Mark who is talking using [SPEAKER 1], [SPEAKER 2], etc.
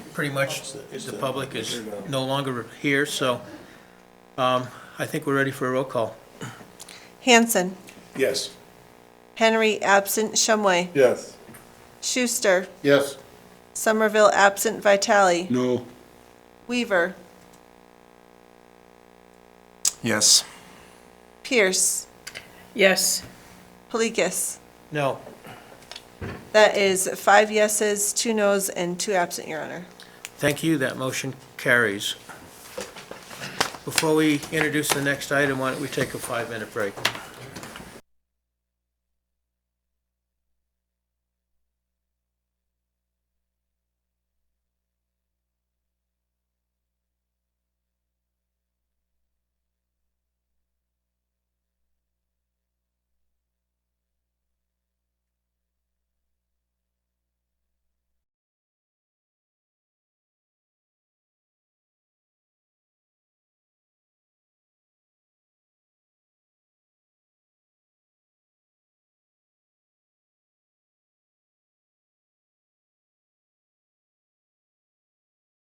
[SPEAKER 1] pretty much
[SPEAKER 2] it's
[SPEAKER 1] the
[SPEAKER 2] the-
[SPEAKER 1] public is
[SPEAKER 2] here now.
[SPEAKER 1] no longer here, so um, I think we're ready for a roll call.
[SPEAKER 3] Hanson,
[SPEAKER 2] Yes.
[SPEAKER 3] Henry absent, Shumway,
[SPEAKER 2] Yes.
[SPEAKER 3] Schuster,
[SPEAKER 2] Yes.
[SPEAKER 3] Somerville absent, Vitale,
[SPEAKER 2] No.
[SPEAKER 3] Weaver,
[SPEAKER 4] Yes.
[SPEAKER 3] Pierce,
[SPEAKER 5] Yes.
[SPEAKER 3] Polikis.
[SPEAKER 1] No,
[SPEAKER 3] That is five yeses, two nos, and two absent, Your Honor.
[SPEAKER 1] thank you, that motion carries. Before we introduce the next item, why don't we take a five-minute break?